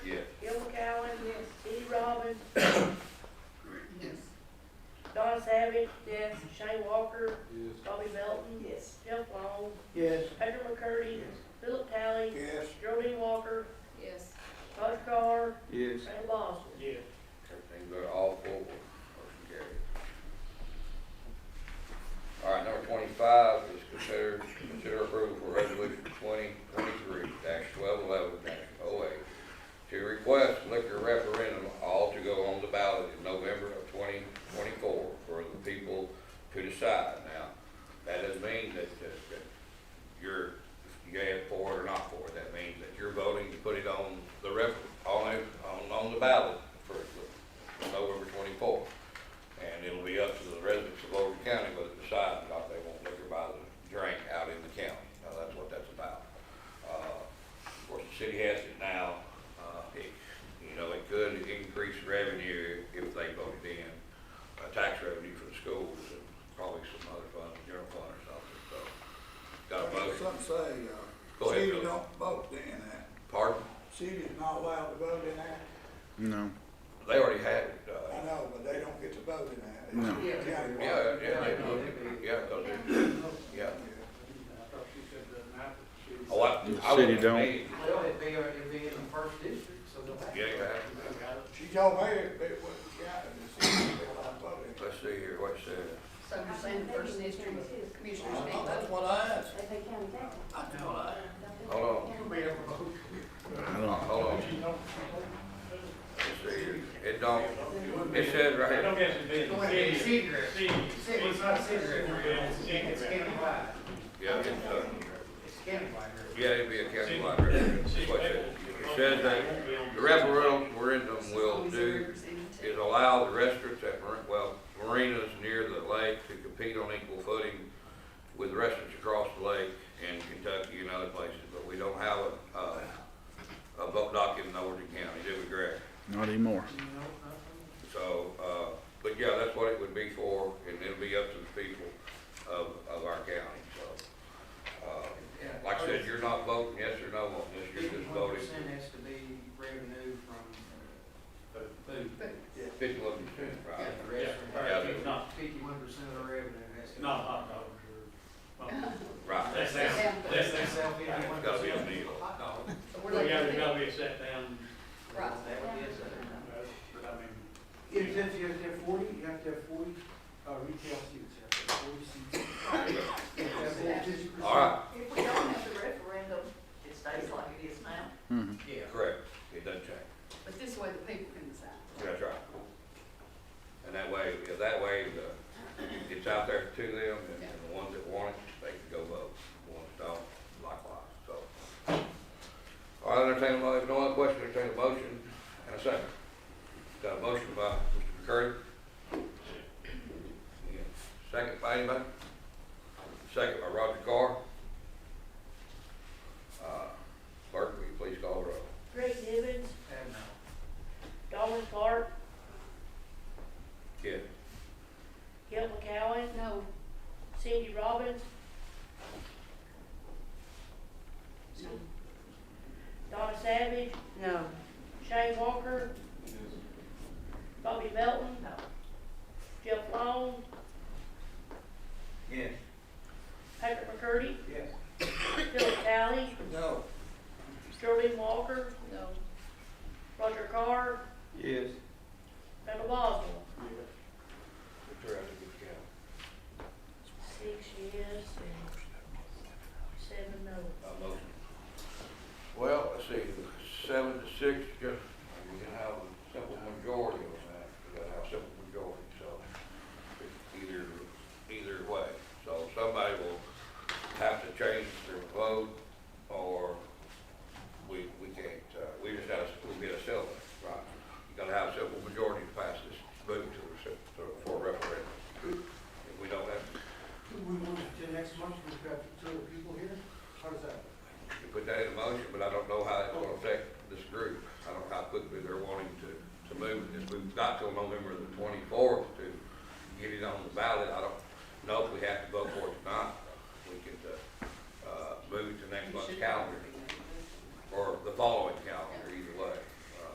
Yes. Shane Walker, Yes. Bobby Melton, Yes. Jeff Long, Yes. Pedro McCurdy, Philip Talley, Yes. Geraldine Walker, Yes. Todd Carr, Yes. and Boswell. Yes. Everything good, all four, motion carried. All right, number twenty-five is consider, consider approval for resolution twenty twenty-three dash twelve eleven dash oh eight to request liquor referendum all to go on the ballot in November of twenty twenty-four for the people to decide. Now, that doesn't mean that, that, that you're, you have for it or not for it, that means that you're voting to put it on the ref, on, it- on, on the ballot for the- for November twenty-fourth. And it'll be up to the residents of Logan County whether to decide or not they want liquor by the drink out in the county. Now, that's what that's about. Uh, of course, the city has it now, uh, it, you know, it could increase revenue if they voted in, uh, tax revenue for the schools and probably some other funds, general fund or something, so. Got a motion? Some Go say, uh, ahead, cities Billy. don't vote in that, Pardon? cities not allowed to vote in that, No. They already had it, I uh, know, but they don't get to vote in that. No. It's yeah, countywide. yeah, they do. yeah, 'cause it- yeah. I thought she said the map that she was. Oh, I, The I city wasn't don't. made. Well, it'd be, it'd be in the first district, so they'll have. to- Yeah, you have to. She told me it it was the county, the cities they allowed to vote in. Let's see here, what's the, So you're saying the first district commissioners I may thought That's what vote? I asked, If they can, they can. that's what I asked. hold on, It'll be able to vote. I don't. hold on, let's see here. It don't, it says right I here, don't guess it'd be It's the going to be city. cigarette. City. City, it's not cigarette, it's, it's countywide, yeah, it's, uh, it's countywide. yeah, it'd be a countywide referendum. That's what it says. It says that the referendum will do is allow the restaurants at, mar- well, marinas near the lake to compete on equal footing with restaurants across the lake in Kentucky and other places, but we don't have a, uh, a vote document in Overton County, do we, Greg? Not anymore. You know, nothing. So, uh, but yeah, that's what it would be for, and it'll be up to the people of, of our county, so. uh, Yeah. Like I said, you're not voting yes or no on this, you're just Fifty-one voting percent has to be revenue from uh, food. fifty-one percent, Yeah, right? the rest Yeah. of, Not, fifty-one percent of the revenue has to. not hot dogs or. well, Right. That's, that's, that's, They that's. sell fifty-one It's gotta be a percent. meal. No. We're Well, looking yeah, at there's it. gotta be a set down, Right. That would be a set. uh, but I mean, You have to have, you have to have forty, you have to have forty, uh, retail seats, you have to have forty seats. You have to have 50%. All right, If we don't have the referendum, it stays like it is now. Mm-hmm. Yeah. correct, it doesn't change. But this way the people can decide. That's right. And that way, if that way, the, it's out there to them, and and the ones that want it, they can go vote, the ones that don't, likewise, so. All right, entertain, a- if no other question, entertain a motion and a second. Got a motion by Mr. McCurdy. Yeah. Second by anybody? Second by Roger Carr. Uh, Clerk, will you please call the roll? Greg Nivens, And, uh, Donald Clark, Yes. Gil McCowen, No, Cindy Robbins. Donna Savage, No. Shane Walker, Bobby Melton, no. Jeff Long, Yes. Patrick McCurdy, Yes. Philip Talley, No. Geraldine Walker, No. Roger Carr, Yes. Randall Boswell. Six yes and seven no. Uh, motion. Well, let's see, seven to six, just, we can have a simple majority on that, we gotta have a simple majority, so, either, either way. So somebody will have to change their vote, or we, we can't, uh, we just have, we get a silver, right? You gotta have a simple majority to pass this, vote to, the sim- to- for a referendum. If we don't have, Do we want to, do next month, we've got two other people here, how does that? You put that in motion, but I don't know how it's gonna affect this group. I don't know how quickly they're wanting to, to move this. We've got till November the twenty-fourth to get it on the ballot. I don't know if we have to vote for it tonight. We could, uh, uh, move it to next month's calendar Uh, or the following